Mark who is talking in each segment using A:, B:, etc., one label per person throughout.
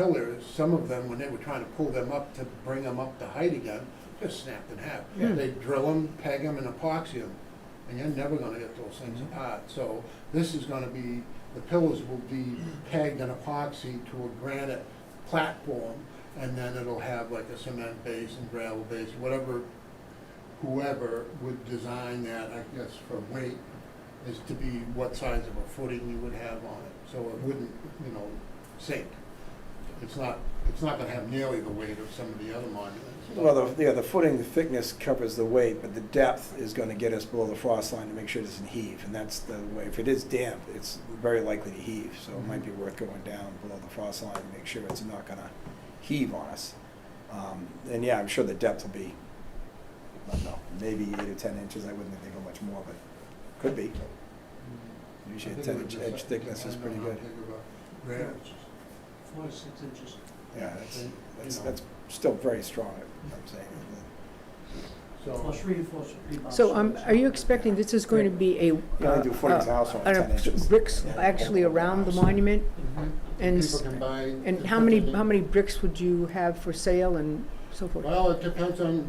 A: pillars, some of them, when they were trying to pull them up to bring them up to height again, just snapped in half.
B: Yeah.
A: They drill them, peg them, and epoxy them, and you're never gonna get those things
B: Mhm.
A: apart. So this is gonna be, the pillars will be pegged and epoxy to a granite platform, and then it'll have like a cement base and gravel base, whatever, whoever would design that, I guess, for weight, is to be what size of a footing you would have on it, so it wouldn't, you know, sink. It's not, it's not gonna have nearly the weight of some of the other monuments. but-
B: Well, the, yeah, the footing, the thickness covers the weight, but the depth is gonna get us below the frost line to make sure it doesn't heave, and that's the way, if it is damp, it's very likely to heave, so it might be worth going down below the frost line to make sure it's not gonna heave on us. Um, and yeah, I'm sure the depth will be, I don't know, maybe eight or ten inches, I wouldn't think of much more, but could be. Usually a ten inch edge thickness is pretty good.
C: Four to six inches.
B: Yeah, that's, that's, that's still very strong, I'm saying.
C: Plus
A: So,
C: reinforced rebound.
D: So um, are you expecting this is going to be a,
B: You only do footings in a house on
D: uh,
B: ten inches.
D: bricks actually around the monument? And s-
A: people can buy.
D: And how many, how many bricks would you have for sale and so forth?
A: Well, it depends on,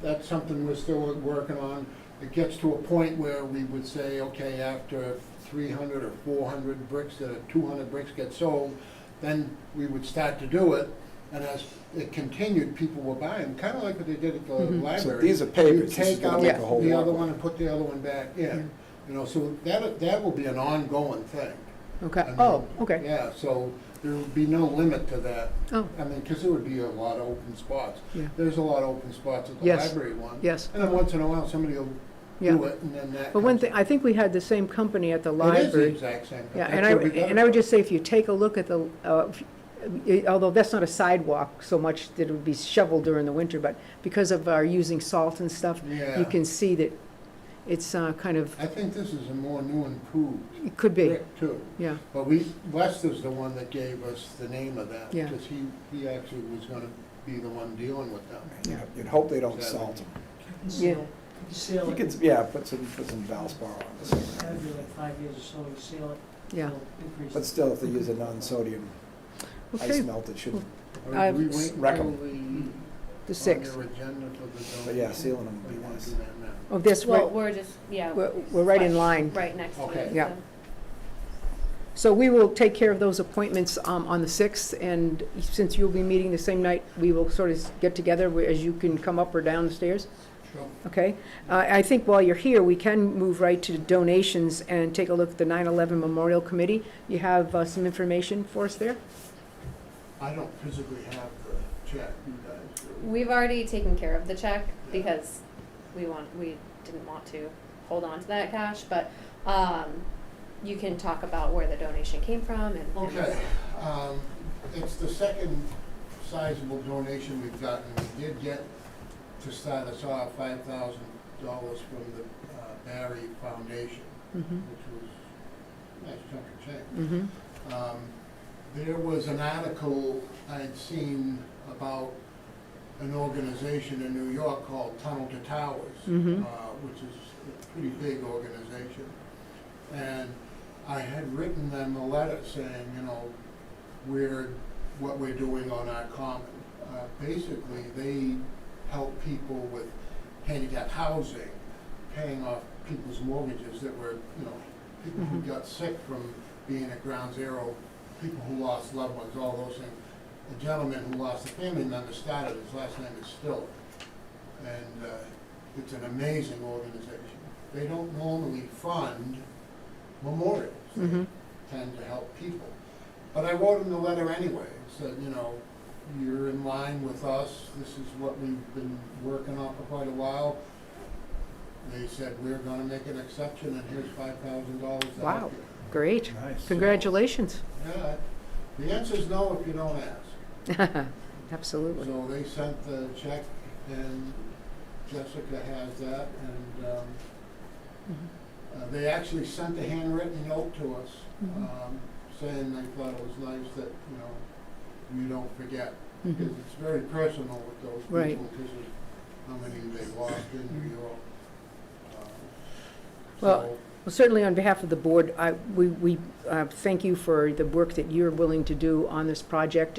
A: that's something we're still working on. It gets to a point where we would say, okay, after three hundred or four hundred bricks, that are two hundred bricks get sold, then we would start to do it, and as it continued, people were buying, kinda like what they did at the
D: Mhm.
A: library.
B: So these are papers.
A: You
B: This is
A: take
B: gonna
A: out
D: make
B: a whole
A: the
B: lot
A: other
B: more.
A: one and put the other one back in, you know, so that, that will be an ongoing thing. I
D: Okay,
A: mean,
D: oh, okay,
A: Yeah, so there would be no limit to that.
D: oh,
A: I mean, because there would be a lot of open spots.
D: Yeah.
A: There's a lot of open spots at the
D: Yes.
A: library one.
D: yes,
A: And then once in a while, somebody will
D: yeah.
A: do it, and then that.
D: But one
A: comes-
D: thing, I think we had the same company at
A: uh,
D: the
A: It is the
D: library.
A: exact same. thing.
D: Yeah,
A: That's
D: and I,
A: where we got it
D: and I would
A: from.
D: just say, if you take a look at the, uh, if- eh, although that's not a sidewalk so much that it would be shoveled during the winter, but because of our using salt and stuff, you
A: Yeah,
D: can see that it's uh, kind of,
A: I think this is a more new and improved
D: it could be,
A: brick too.
D: yeah.
A: But we, Lester's the one that gave us the name of that.
D: Yeah.
A: Because he, he actually was gonna be the one dealing with them.
D: Yeah.
B: You'd hope they don't salt them.
D: Yeah.
C: Seal, you seal
B: You
C: it.
B: could, yeah, put some, put some Valspar on
C: It's gotta
B: it.
C: be like five years or so, you seal it.
D: Yeah.
C: it'll Increase.
B: But still, if they use a non-sodium ice
D: Okay,
B: melt, it shouldn't,
A: Or
D: I've-
A: we wait
B: Wreck 'em.
A: till the-
D: the sixth.
A: On your agenda for the zoning.
B: but yeah, sealing them
A: Or
B: would
A: you
B: be
A: wanna
B: nice.
A: do that now?
D: Oh, that's
E: Well,
D: right,
E: we're just, yeah.
D: we're, we're right in line.
E: Right next to
A: Okay.
E: it.
D: Yeah.
E: so.
D: So we will take care of those appointments um, on the 6th, and since you'll be meeting the same night, we will sort of get together where- as you can come up or down the stairs,
A: Sure.
D: okay? Uh, I think while you're here, we can move right to donations and take a look at the 9/11 Memorial Committee. You have uh, some information for us there?
A: I don't physically have the check, you guys do.
E: We've already taken care of the check because we want, we didn't want to hold on to that cash, but, um, you can talk about where the donation came from and.
A: Okay, um, it's the second sizable donation we've gotten. We did get, to start us off, five thousand dollars from the uh, Barry Foundation,
D: Mhm,
A: which was a nice chunk of change.
D: mhm,
A: Um, There was an article I'd seen about an organization in New York called Tunnel to Towers,
D: Mhm.
A: uh, which is a pretty big organization. And I had written them a letter saying, you know, we're, what we're doing on our common. Uh, Basically, they help people with handicap housing, paying off people's mortgages that were, you know, people who
D: Mhm.
A: got sick from being at ground zero, people who lost loved ones, all those things. A gentleman who lost a family member started, his last name is Still. And uh, it's an amazing organization. They don't normally fund memorials. They
D: mhm.
A: tend to help people. But I wrote him the letter anyway, said, you know, you're in line with us, this is what we've been working on for quite a while. They said, we're gonna make an exception, and here's five thousand dollars to help
D: Wow.
A: you."
D: Great,
B: Nice.
D: congratulations.
A: Yeah, the answer's no if you don't ask.
D: Absolutely.
A: So they sent the check, and Jessica has that, and, um,
D: Mhm.
A: Uh, They actually sent a handwritten note to us,
D: Mhm.
A: um, saying they thought it was nice that, you know, you don't forget, because
D: Mhm.
A: it's very personal with those
D: Right.
A: people, because of how many they lost in New York. Um,
D: Well,
A: so-
D: Well, certainly on behalf of the board, I, we, we uh, thank you for the work that you're willing to do on this project